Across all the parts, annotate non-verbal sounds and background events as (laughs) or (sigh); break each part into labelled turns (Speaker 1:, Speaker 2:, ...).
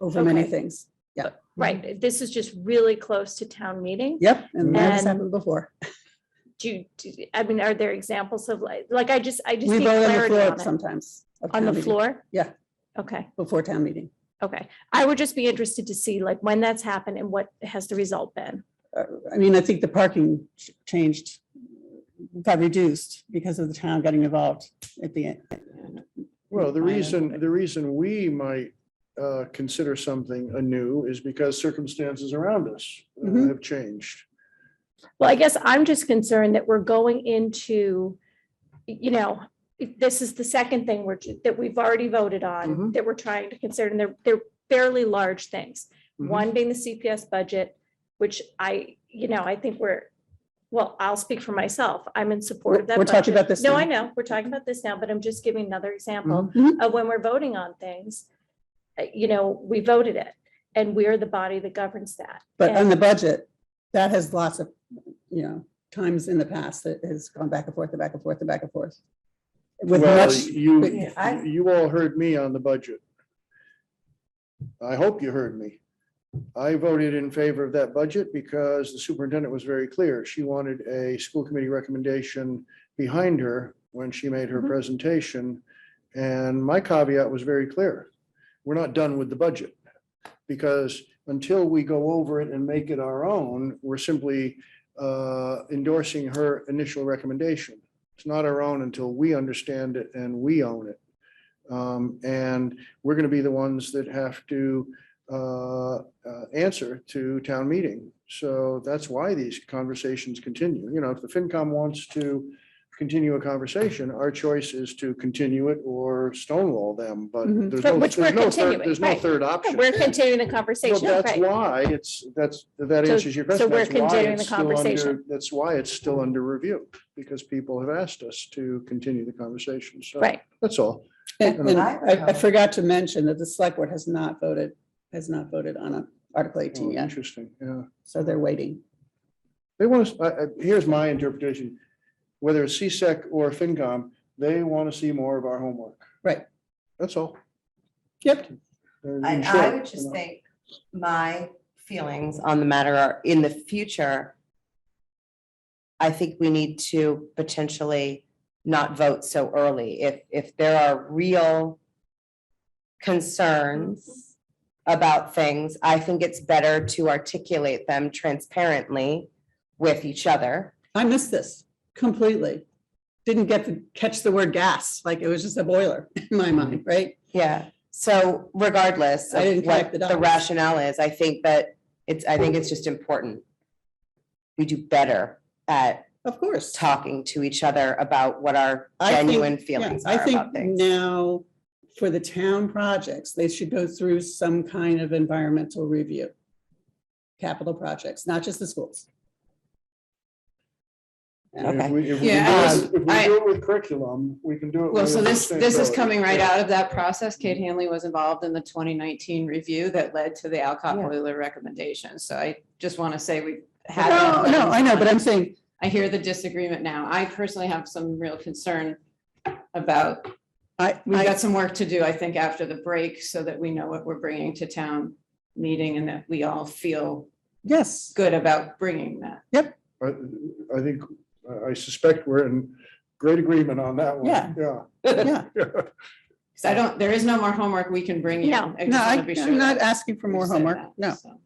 Speaker 1: over many
Speaker 2: Okay.
Speaker 1: things. Mm-hmm.
Speaker 2: Right, this is just really close to town meeting.
Speaker 1: Yep, and that has
Speaker 2: And-
Speaker 1: happened before.
Speaker 2: Do, you- do- I mean, are there examples of like, like I just, I just
Speaker 1: We
Speaker 2: need
Speaker 1: vote on the
Speaker 2: clarity
Speaker 1: floor
Speaker 2: on it.
Speaker 1: sometimes. of
Speaker 2: On
Speaker 1: town
Speaker 2: the
Speaker 1: meeting,
Speaker 2: floor?
Speaker 1: Yeah.
Speaker 2: Okay,
Speaker 1: Before town meeting.
Speaker 2: okay. I would just be interested to see like when that's happened and what has the result been.
Speaker 1: Uh, I mean, I think the parking ch- changed, got reduced because of the town getting involved at the end.
Speaker 3: Well, the
Speaker 1: Minor.
Speaker 3: reason, the reason we might uh, consider something anew is because circumstances around us uh,
Speaker 1: Mhm.
Speaker 3: have changed.
Speaker 2: Well, I guess I'm just concerned that we're going into, you know, this is the second thing we're, that we've already voted on,
Speaker 1: Mm-hmm.
Speaker 3: Mhm.
Speaker 2: that we're trying to consider, and they're, they're fairly large things.
Speaker 1: Mm-hmm.
Speaker 3: Mhm.
Speaker 2: One being the CPS budget, which I, you know, I think we're, well, I'll speak for myself. I'm in support of that.
Speaker 1: We're talking
Speaker 2: budget.
Speaker 1: about this
Speaker 2: No,
Speaker 1: now.
Speaker 2: I know. We're talking about Mm-hmm. this now, but I'm just giving another example
Speaker 1: Mhm.
Speaker 2: of when we're voting on things. uh, You know, we voted it and we're the body that governs that.
Speaker 1: But on
Speaker 2: And-
Speaker 1: the budget, that has lots of, you know, times in the past that has gone back and forth and back and forth and back and forth. With
Speaker 3: Well,
Speaker 1: much,
Speaker 3: you,
Speaker 1: Yeah, I-
Speaker 3: you all heard me on the budget. I hope you heard me. I voted in favor of that budget because the superintendent was very clear. She wanted a school committee recommendation behind her when she made her
Speaker 1: Mm-hmm.
Speaker 2: Mhm.
Speaker 3: presentation. And my caveat was very clear. We're not done with the budget. Because until we go over it and make it our own, we're simply uh, endorsing her initial recommendation. It's not our own until we understand it and we own it. Um, And we're going to be the ones that have to uh, uh, answer to town meeting. So that's why these conversations continue. You know, if the FinCom wants to continue a conversation, our choice is to continue it or stonewall them, but
Speaker 1: Mhm.
Speaker 2: Mm-hmm.
Speaker 3: there's
Speaker 2: But
Speaker 3: no,
Speaker 2: which
Speaker 3: there's
Speaker 2: we're
Speaker 3: no third,
Speaker 2: continuing,
Speaker 3: there's no
Speaker 2: right.
Speaker 3: third option.
Speaker 2: We're continuing the
Speaker 3: Well,
Speaker 2: conversation.
Speaker 3: that's
Speaker 2: right.
Speaker 3: why it's, that's, that
Speaker 2: So-
Speaker 3: answers your
Speaker 2: so
Speaker 3: question.
Speaker 2: we're
Speaker 3: That's why
Speaker 2: continuing
Speaker 3: it's
Speaker 2: the
Speaker 3: still under-
Speaker 2: conversation.
Speaker 3: That's why it's still under review, because people have asked us to continue the conversation.
Speaker 1: uh,
Speaker 3: So
Speaker 2: Right.
Speaker 3: that's all.
Speaker 1: and and I, I forgot to mention that the select board has not voted, has not voted on a Article
Speaker 3: Oh,
Speaker 1: eighteen yet,
Speaker 3: Interesting, yeah.
Speaker 1: so they're waiting.
Speaker 3: They want us, I- I- here's my interpretation, whether it's CSEC or FinCom, they want to see more of our homework.
Speaker 1: Right.
Speaker 3: That's all.
Speaker 1: Yep,
Speaker 3: In
Speaker 4: I, I
Speaker 3: short,
Speaker 4: would
Speaker 3: you
Speaker 4: just
Speaker 3: know.
Speaker 4: think my feelings on the matter are in the future. I think we need to potentially not vote so early. If, if there are real concerns about things, I think it's better to articulate them transparently with each other.
Speaker 1: I missed this completely. Didn't get to catch the word gas, like it was just a boiler (laughs) in my mind, right?
Speaker 4: Yeah, so regardless
Speaker 1: I
Speaker 4: of
Speaker 1: didn't
Speaker 4: what
Speaker 1: connect the
Speaker 4: the
Speaker 1: dots.
Speaker 4: rationale is, I think that it's, I think it's just important. We do better at
Speaker 1: Of course.
Speaker 4: talking to each other about what our
Speaker 1: I think-
Speaker 4: genuine
Speaker 1: yeah,
Speaker 4: feelings
Speaker 1: I
Speaker 4: are
Speaker 1: think
Speaker 4: about things.
Speaker 1: Now, for the town projects, they should go through some kind of environmental review. Capital projects, not just the schools.
Speaker 3: And If
Speaker 4: Okay.
Speaker 3: we, if we do
Speaker 5: Yeah,
Speaker 3: it- if we
Speaker 5: I-
Speaker 3: do it with curriculum, we can do it.
Speaker 5: Well,
Speaker 3: with
Speaker 5: so this, this is
Speaker 3: sustainability.
Speaker 5: coming right
Speaker 3: Yeah.
Speaker 5: out of that process. Kate
Speaker 1: Mm-hmm.
Speaker 5: Hanley was involved in the twenty nineteen review that led to the Alcott
Speaker 4: Yeah.
Speaker 5: boiler recommendation. So I just want to say we had.
Speaker 1: No,
Speaker 5: that
Speaker 1: no, I know,
Speaker 5: on.
Speaker 1: but I'm saying,
Speaker 5: I hear the disagreement now. I personally have some real concern about,
Speaker 1: I,
Speaker 5: we've
Speaker 1: I,
Speaker 5: got some work to do, I think, after the break so that we know what we're bringing to town meeting and that we all feel (laughs)
Speaker 1: yes,
Speaker 5: good about bringing that.
Speaker 3: I, I think, I suspect we're in great agreement on that one.
Speaker 1: Yeah.
Speaker 3: Yeah. (laughs)
Speaker 1: yeah.
Speaker 5: Because I don't, there is no more homework we can bring you.
Speaker 2: No,
Speaker 5: I just
Speaker 1: No,
Speaker 5: wanna
Speaker 1: I,
Speaker 5: be sure
Speaker 1: I'm not
Speaker 5: that
Speaker 1: asking for
Speaker 5: we've
Speaker 1: more
Speaker 5: said
Speaker 1: homework,
Speaker 5: that,
Speaker 1: no.
Speaker 5: so.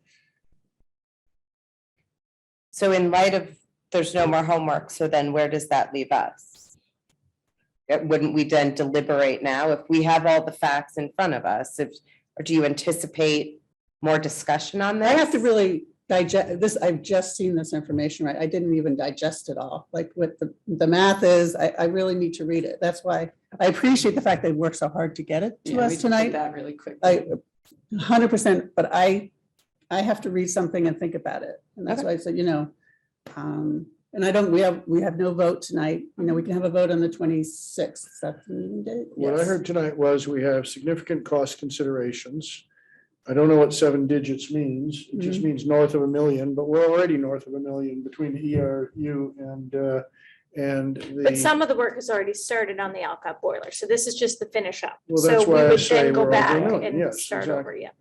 Speaker 4: So in light of, there's no more homework, so then where does that leave us? Uh, Wouldn't we then deliberate now if we have all the facts in front of us? If, or do you anticipate more discussion on this?
Speaker 1: I have to really digest this. I've just seen this information, right? I didn't even digest it all. Like what the, the math is, I, I really need to read it. That's why I appreciate the fact they worked so hard to get it
Speaker 5: Yeah,
Speaker 1: to
Speaker 5: we
Speaker 1: us
Speaker 5: did
Speaker 1: tonight.
Speaker 5: That really quick.
Speaker 1: I, hundred percent, but I, I have to read something and think about it. And that's why I said, you know, um, and I don't, we have, we have no vote tonight. You know, we can have a vote on the twenty-sixth.
Speaker 3: What I heard tonight was we have significant cost considerations. I don't know what seven digits means. It
Speaker 2: Mm-hmm.
Speaker 3: just means north of a million, but we're already north of a million between the ERU and, uh, and the.
Speaker 2: But some of the work has already started on the Alcott boiler, so this is just the finish up.
Speaker 3: Well,
Speaker 2: So
Speaker 3: that's
Speaker 2: we
Speaker 3: why I
Speaker 2: would
Speaker 3: say
Speaker 2: then go
Speaker 3: we're
Speaker 2: back
Speaker 3: overdoing it.
Speaker 2: and
Speaker 3: Yes,
Speaker 2: start
Speaker 3: exactly.
Speaker 2: over, yeah.